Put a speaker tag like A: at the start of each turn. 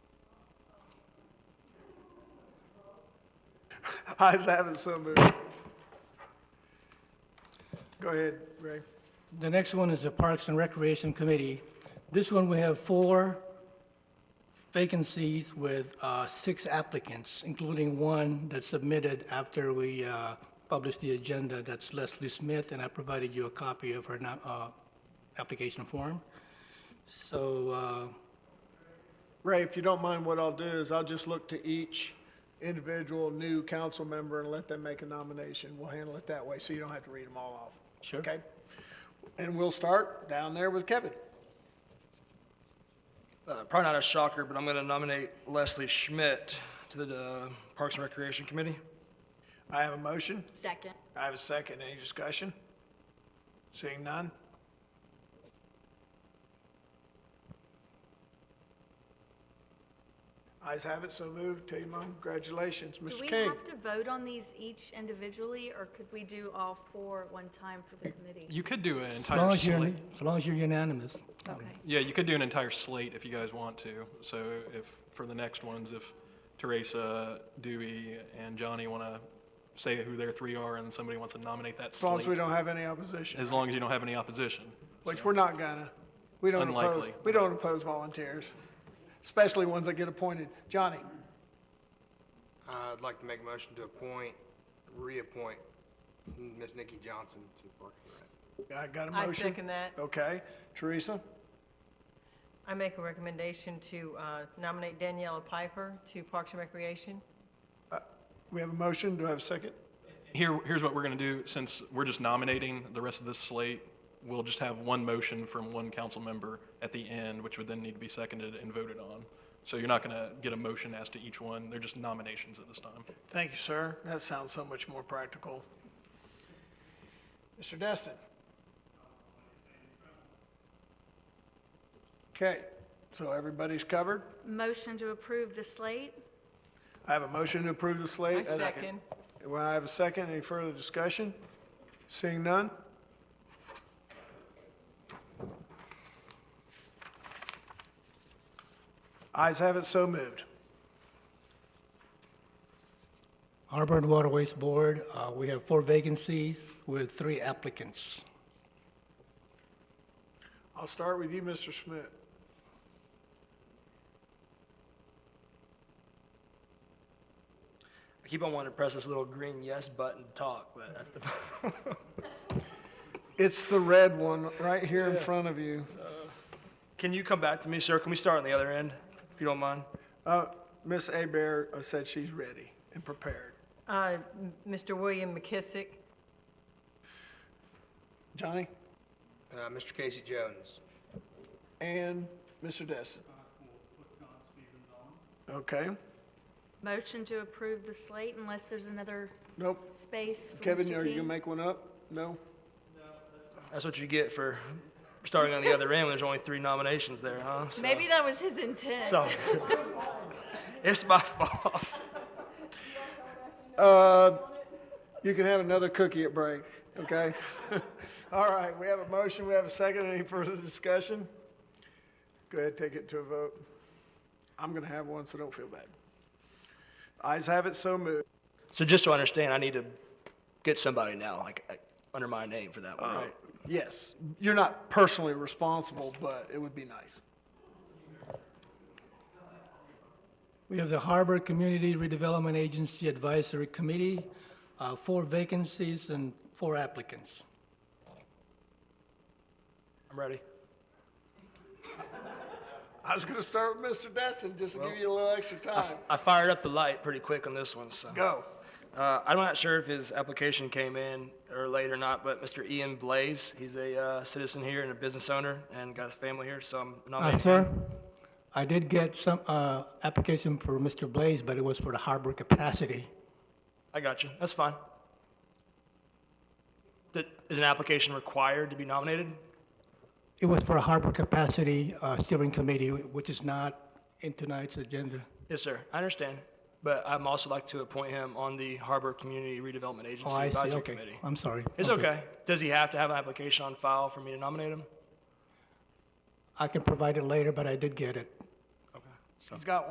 A: Ayes have it, so moved. Go ahead, Ray.
B: The next one is the Parks and Recreation Committee. This one, we have four vacancies with uh, six applicants, including one that submitted after we uh, published the agenda. That's Leslie Smith, and I provided you a copy of her no- uh, application form. So uh,
A: Ray, if you don't mind, what I'll do is I'll just look to each individual new council member and let them make a nomination. We'll handle it that way, so you don't have to read them all off.
B: Sure.
A: Okay? And we'll start down there with Kevin.
C: Uh, probably not a shocker, but I'm going to nominate Leslie Schmidt to the uh, Parks and Recreation Committee.
A: I have a motion.
D: Second.
A: I have a second. Any discussion? Seeing none? Eyes have it, so moved. Tell your mom, congratulations,
D: Do
A: Mr.
D: we
A: King.
D: have to vote on these each individually, or could we do all four at one time for the committee?
E: You could do an
B: as long
E: entire
B: as you're,
E: slate.
B: as long as you're unanimous.
D: Okay.
E: Yeah, you could do an entire slate if you guys want to. So if, for the next ones, if Teresa, Dewey, and Johnny want to say who their three are and somebody wants to nominate that
A: As long as we
E: slate,
A: don't have any opposition,
E: as long as you don't have any opposition.
A: which we're not gonna. We don't oppose,
E: Unlikely.
A: we don't oppose volunteers, especially ones that get appointed. Johnny,
F: I'd like to make a motion to appoint, reappoint Ms. Nikki Johnson to Parks and Rec.
A: I got a
G: I
A: motion?
G: second that.
A: Okay. Teresa,
G: I make a recommendation to uh, nominate Daniela Piper to Parks and Recreation.
A: we have a motion. Do I have a second?
E: Here, here's what we're going to do, since we're just nominating the rest of this slate, we'll just have one motion from one council member at the end, which would then need to be seconded and voted on. So you're not going to get a motion as to each one, they're just nominations at this time.
A: Thank you, sir. That sounds so much more practical. Mr. Destin? Okay, so everybody's covered.
D: Motion to approve the slate?
A: I have a motion to approve the
G: I
A: slate.
G: second.
A: Well, I have a second. Any further discussion? Seeing none? Eyes have it, so moved.
B: Harbor and Waterways Board, uh, we have four vacancies with three applicants.
A: I'll start with you, Mr. Schmidt.
C: I keep on wanting to press this little green yes button to talk, but that's the.
A: It's the red one right here in front of you.
C: Can you come back to me, sir? Can we start on the other end, if you don't mind?
A: Uh, Ms. Abear uh, said she's ready and prepared.
G: Uh, M- Mr. William McKissick,
A: Johnny?
F: Uh, Mr. Casey Jones.
A: And Mr. Destin? Okay,
D: Motion to approve the slate unless there's another
A: nope.
D: space for
A: Kevin,
D: Mr.
A: are you gonna
D: King?
A: make one up? No?
C: That's what you get for starting on the other end when there's only three nominations there, huh? So-
D: Maybe that was his intent.
C: So, it's my fault.
A: Uh, you can have another cookie at break, okay? All right, we have a motion, we have a second, any further discussion? Go ahead, take it to a vote. I'm gonna have one, so don't feel bad. Eyes have it, so moved.
C: So just to understand, I need to get somebody now, like, uh, under my name for that one, right?
A: Yes, you're not personally responsible, but it would be nice.
B: We have the Harbor Community Redevelopment Agency Advisory Committee, uh, four vacancies and four applicants.
C: I'm ready.
A: I was gonna start with Mr. Destin, just to give you a little extra
C: I
A: time.
C: f- I fired up the light pretty quick on this one, so.
A: Go.
C: Uh, I'm not sure if his application came in or late or not, but Mr. Ian Blaze, he's a uh, citizen here and a business owner and got his family here, so I'm
B: Uh,
C: nominating.
B: Sir, I did get some uh, application for Mr. Blaze, but it was for the harbor capacity.
C: I got you. That's fine. That, is an application required to be nominated?
B: It was for a harbor capacity uh, steering committee, which is not in tonight's agenda.
C: Yes, sir. I understand. But I'm also like to appoint him on the Harbor Community Redevelopment
B: Oh,
C: Agency
B: I see,
C: Advisory
B: okay.
C: Committee.
B: I'm sorry.
C: It's okay. Does he have to have an application on file for me to nominate him?
B: I can provide it later, but I did get it.
A: He's got one.